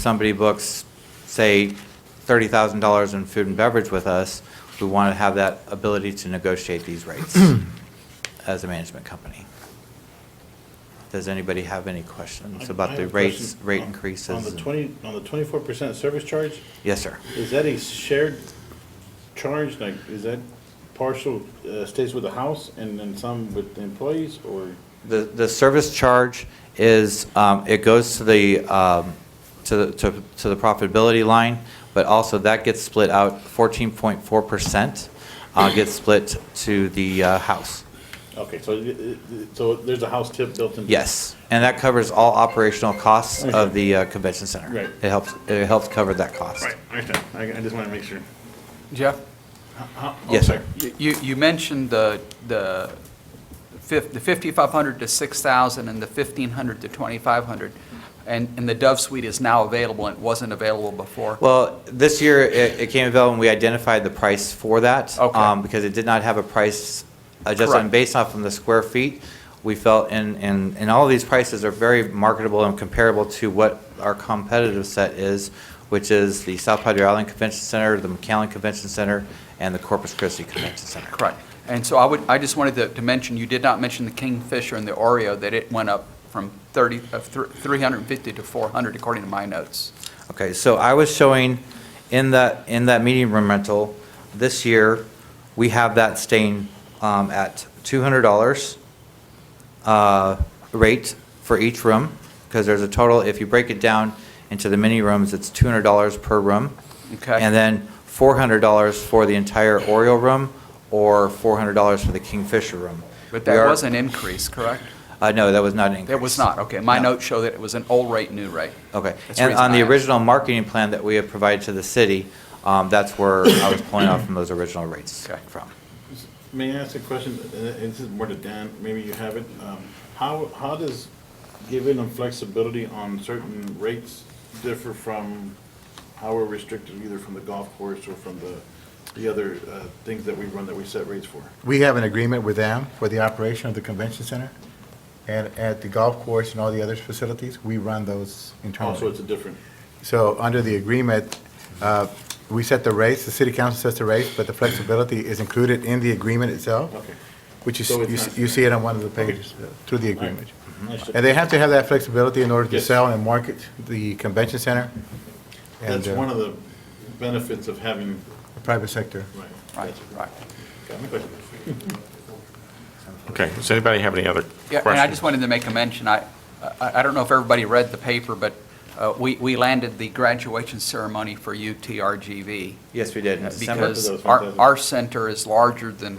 somebody books, say, $30,000 in food and beverage with us, we want to have that ability to negotiate these rates as a management company. Does anybody have any questions I- I about the have a rates, question. rate On- increases? On the and- twenty, on the twenty-four percent service charge, Yes, sir. is that a shared charge, like, is that partial, uh, stays with the house and then some with the employees, or? The, the service charge is, um, it goes to the, um, to, the- to to the profitability line, but also that gets split out, 14.4% uh, gets split to the uh, house. Okay, so, it- it- it- so there's a house tip built in? Yes, and that covers all operational costs of the uh, convention center. Right. It helps, it helps cover that cost. Right, I understand, I, I just wanna make sure. Jeff, How- how- Yes, sir. you- you, you mentioned the, the fif- the 5,500 to 6,000 and the 1,500 to 2,500, and, and the Dove Suite is now available, and it wasn't available before. Well, this year, it, it came about when we identified the price for that. Okay. um, Because it did not have a price adjustment Correct. based off from the square feet. We felt, and, and, and all of these prices are very marketable and comparable to what our competitive set is, which is the South Padre Island Convention Center, the McAllen Convention Center, and the Corpus Christi Convention Center. Correct. And so I would, I just wanted to- to mention, you did not mention the Kingfisher and the Oreo, that it went up from 30, of thr- 350 to 400, according to my notes. Okay, so I was showing in that, in that meeting room rental, this year, we have that staying um, at $200 uh, rate for each room, because there's a total, if you break it down into the mini rooms, it's $200 per room. Okay. And then $400 for the entire Oriole room, or $400 for the Kingfisher room. But We that are- was an increase, correct? Uh, No, that was not an increase. There was not, okay. My No. notes show that it was an old rate, new rate. Okay, That's and reason on I the asked. original marketing plan that we had provided to the city, um, that's where I was pulling off from those original rates Okay. from. May I ask a question, Uh, this is more to Dan, maybe you have it, um, how, how does giving them flexibility on certain rates differ from how we're restricted either from the golf course or from the, the other, uh, things that we run that we set rates for? We have an agreement with them for the operation of the convention center, and at the golf course and all the other facilities, we run those Also, Oh, it's internally. a different, So under the agreement, uh, we set the rates, the city council sets the rates, but the flexibility is included in the agreement itself, okay. which you s- So it's you, not- s- you see it on one of the pages, uh, through the All right. Mm-hmm. agreement. Understood. And they have to have that flexibility in order to Yes. sell and market the convention center and That's uh, one of the benefits of having, the private sector. right. Right, gotcha. right. Got my question. Okay, does anybody have any other Yeah, questions? and I just wanted to make a mention, I, I I don't know if everybody read the paper, but uh, we, we landed the graduation ceremony for UTRGV. Yes, we did in uh, December. Because Those our, fantastic. our center is larger than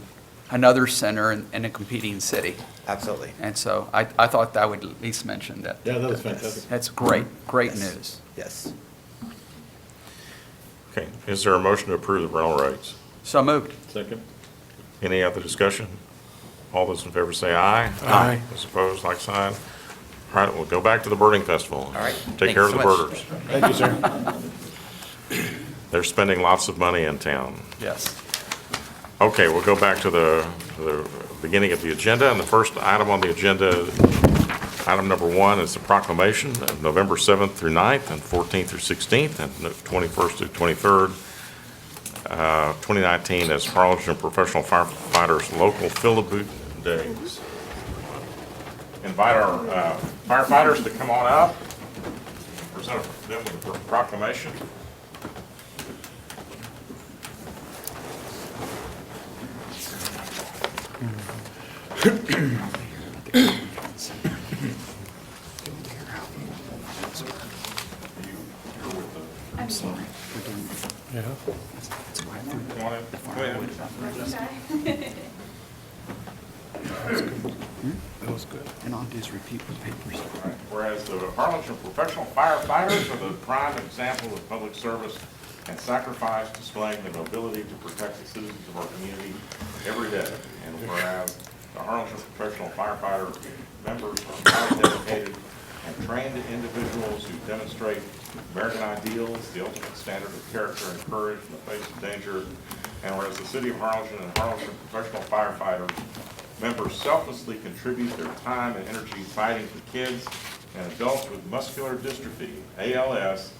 another center in, in a competing city. Absolutely, And so I, I thought I would at least mention that. Yeah, that was fantastic. That's great, great Yes. news. yes. Okay, is there a motion to approve the rental rates? So moved. Second? Any other discussion? All those in favor say aye. Aye. Those opposed, like sign. All right, we'll go back to the birding festival. All right, Take thank care you of the so much. birders. Thank you, sir. They're spending lots of money in town. Yes. Okay, we'll go back to the, to the beginning of the agenda, and the first item on the agenda, item number one, is the proclamation of November 7th through 9th, and 14th through 16th, and 21st through 23rd, uh, 2019, as Harlingen Professional Firefighters Local Philiboot Days. Invite our uh, firefighters to come on up, present them with a proclamation. Come on in. Go ahead. And I'll just repeat the papers. Whereas the Harlingen professional firefighters are the prime example of public service and sacrifice displaying their mobility to protect the citizens of our community every day. And whereas the Harlingen professional firefighter members are highly dedicated and trained individuals who demonstrate American ideals, the ultimate standard of character and courage in the face of danger. And whereas the city of Harlingen and Harlingen professional firefighters Members selflessly contribute their time and energy fighting for kids and adults with muscular dystrophy, ALS,